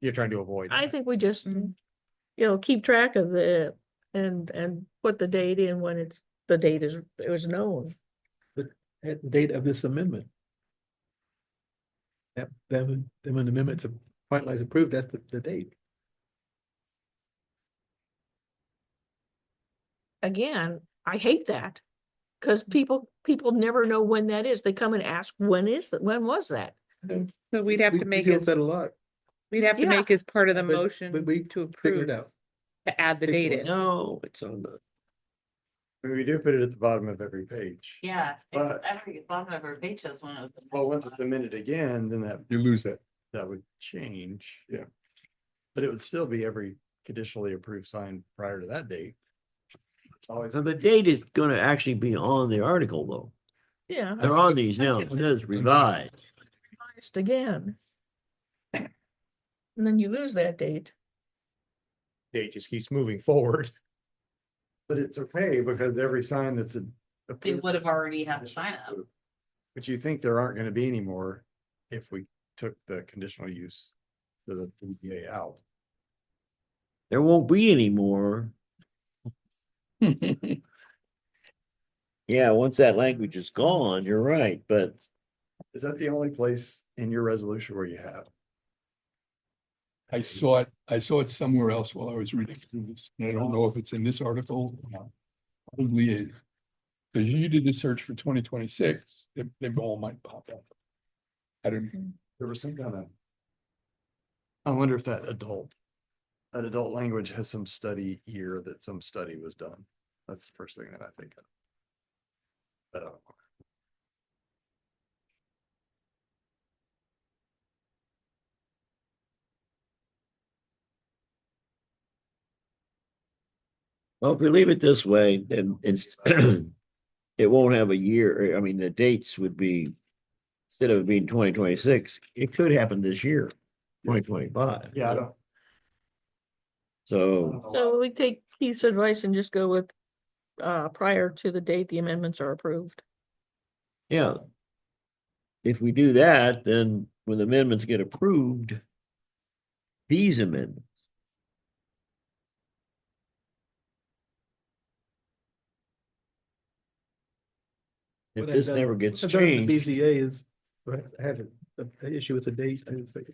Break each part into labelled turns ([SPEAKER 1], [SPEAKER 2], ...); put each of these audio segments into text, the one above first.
[SPEAKER 1] you're trying to avoid.
[SPEAKER 2] I
[SPEAKER 1] that.
[SPEAKER 2] think we just,
[SPEAKER 3] Mhm.
[SPEAKER 2] you know, keep track of the, and, and put the date in when it's, the date is, it was known.
[SPEAKER 4] at the date of this amendment. That, that, would- then when the amendment's finalized approved, that's the, the date.
[SPEAKER 2] Again, I hate that. Cause people, people never know when that is. They come and ask, when is that? When was that?
[SPEAKER 3] So we'd have
[SPEAKER 4] We-
[SPEAKER 3] to
[SPEAKER 4] we
[SPEAKER 3] make
[SPEAKER 4] deal
[SPEAKER 3] it,
[SPEAKER 4] with That a lot,
[SPEAKER 3] we'd have to
[SPEAKER 2] Yeah.
[SPEAKER 3] make as part of the
[SPEAKER 4] But- but we
[SPEAKER 3] motion to approve,
[SPEAKER 4] figure it out.
[SPEAKER 3] to add the date in.
[SPEAKER 4] No, it's on the.
[SPEAKER 5] We do put it at the bottom of every page.
[SPEAKER 6] Yeah,
[SPEAKER 5] But-
[SPEAKER 6] every bottom of our page has one of them.
[SPEAKER 5] Well, once it's amended again, then that,
[SPEAKER 1] You lose that.
[SPEAKER 5] that would change.
[SPEAKER 1] Yeah.
[SPEAKER 5] But it would still be every conditionally approved sign prior to that date. It's Always,
[SPEAKER 7] So the date is gonna actually be on the article though.
[SPEAKER 2] Yeah.
[SPEAKER 7] They're on these now. It says revised.
[SPEAKER 2] revised Again. And then you lose that date.
[SPEAKER 1] Date just keeps moving forward.
[SPEAKER 5] but it's okay because every sign that's a.
[SPEAKER 6] They
[SPEAKER 5] approved
[SPEAKER 6] would have
[SPEAKER 5] sign
[SPEAKER 6] already had the sign up.
[SPEAKER 5] conditionally approved. But you think there aren't gonna be any more if we took the conditional use to the PZA out.
[SPEAKER 7] There won't be any more. Yeah, once that language is gone, you're right, but
[SPEAKER 5] Is that the only place in your resolution where you have?
[SPEAKER 8] I saw it, I saw it somewhere else while I was reading through this, and I don't know if it's in this article. or not. Probably is. Because you did the search for twenty twenty-six, they, they all might pop up. I don't,
[SPEAKER 6] Hmm.
[SPEAKER 5] There was some kind of. I wonder if that adult, that adult language has some study year that some study was done. That's the first thing that I think of. But uh, I don't know.
[SPEAKER 7] well, if we leave it this way, then it's. It won't have a year, I mean, the dates would be. Instead of being twenty twenty-six, it could happen this year, twenty twenty-five.
[SPEAKER 5] Yeah, I don't. I
[SPEAKER 7] So,
[SPEAKER 5] don't know.
[SPEAKER 2] So we take Keith's advice and just go with, uh, prior to the date the amendments are approved.
[SPEAKER 7] yeah. If we do that, then when the amendments get approved. These amendments. If
[SPEAKER 4] What I've
[SPEAKER 7] this
[SPEAKER 4] done-
[SPEAKER 7] never gets
[SPEAKER 4] I've done with
[SPEAKER 7] changed,
[SPEAKER 4] BZA is, I had a, a issue with the date, and it's like,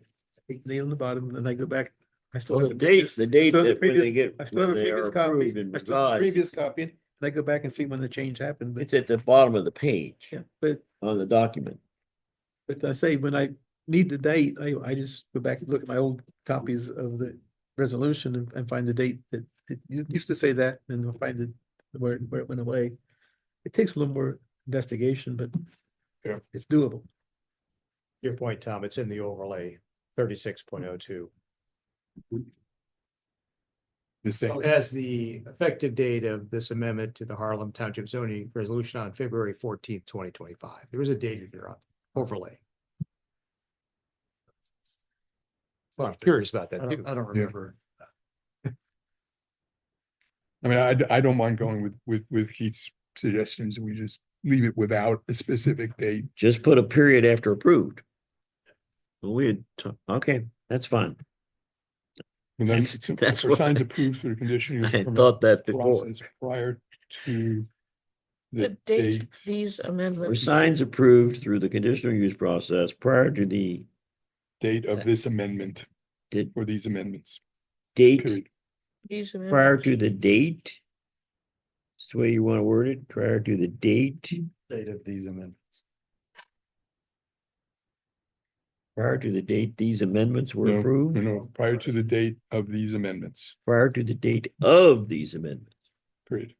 [SPEAKER 4] eight nail on the bottom, then I go back. I still
[SPEAKER 7] well,
[SPEAKER 4] have
[SPEAKER 7] the dates, the date
[SPEAKER 4] still have the
[SPEAKER 7] that when they
[SPEAKER 4] previous-
[SPEAKER 7] get,
[SPEAKER 4] I still
[SPEAKER 7] when
[SPEAKER 4] have a
[SPEAKER 7] they are
[SPEAKER 4] previous copy,
[SPEAKER 7] approved and
[SPEAKER 4] I still have a
[SPEAKER 7] revised,
[SPEAKER 4] previous copy, and I go back and see when the change happened, but,
[SPEAKER 7] it's at the bottom of the page
[SPEAKER 4] yeah, but,
[SPEAKER 7] on the document.
[SPEAKER 4] but I say, when I need the date, I, I just go back and look at my old copies of the resolution and, and find the date that, it u- used to say that, and I'll find it, where, it- where it went away. It takes a little more investigation, but
[SPEAKER 1] Yeah.
[SPEAKER 4] it's doable.
[SPEAKER 1] Your point, Tom, it's in the overlay thirty-six point oh two.
[SPEAKER 8] the same,
[SPEAKER 1] As the effective date of this amendment to the Harlem Township zoning resolution on February fourteenth, twenty twenty-five. There was a date in there on overlay. Well, I'm curious about
[SPEAKER 5] I
[SPEAKER 1] that too.
[SPEAKER 5] don't, I don't remember.
[SPEAKER 8] I mean, I, d- I don't mind going with, with, with Keith's suggestions, we just leave it without a specific date.
[SPEAKER 7] Just put a period after approved. We had, t- okay, that's fine.
[SPEAKER 8] And then
[SPEAKER 7] That's-
[SPEAKER 8] it's-
[SPEAKER 7] that's
[SPEAKER 8] for
[SPEAKER 7] what-
[SPEAKER 8] signs approved through the conditional
[SPEAKER 7] I
[SPEAKER 8] use
[SPEAKER 7] had
[SPEAKER 8] permit
[SPEAKER 7] thought that before.
[SPEAKER 8] process prior to
[SPEAKER 2] The
[SPEAKER 8] the
[SPEAKER 2] date
[SPEAKER 8] date.
[SPEAKER 2] these
[SPEAKER 7] Were
[SPEAKER 2] amendments.
[SPEAKER 7] signs approved through the conditional use process prior to the
[SPEAKER 8] date of this amendment
[SPEAKER 7] Did-
[SPEAKER 8] or these amendments,
[SPEAKER 7] date,
[SPEAKER 8] period.
[SPEAKER 2] these
[SPEAKER 7] prior
[SPEAKER 2] amendments-
[SPEAKER 7] to the date? That's the way you want to word it, prior to the date,
[SPEAKER 5] Date of these amendments.
[SPEAKER 7] prior to the date these amendments were
[SPEAKER 8] Mm-hmm. No, no,
[SPEAKER 7] approved,
[SPEAKER 8] no, prior to the date of these amendments,
[SPEAKER 7] prior to the date of these amendments.
[SPEAKER 8] period.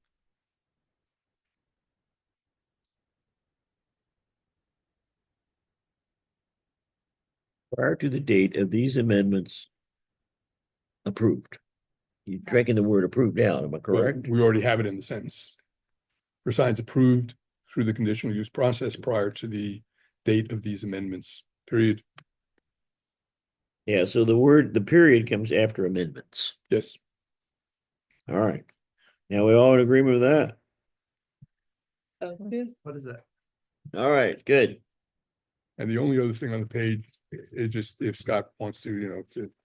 [SPEAKER 7] Prior to the date of these amendments approved. You're taking the word approved out, am I
[SPEAKER 8] But
[SPEAKER 7] correct?
[SPEAKER 8] We already have it in the sentence. For signs approved through the conditional use process prior to the date of these amendments, period.
[SPEAKER 7] Yeah, so the word, the period comes after amendments.
[SPEAKER 8] Yes.
[SPEAKER 7] All right. Now we all in agreement with that?
[SPEAKER 5] What is that?
[SPEAKER 7] All right, good.
[SPEAKER 8] And the only other thing on the page, it just, if Scott wants to, you know, to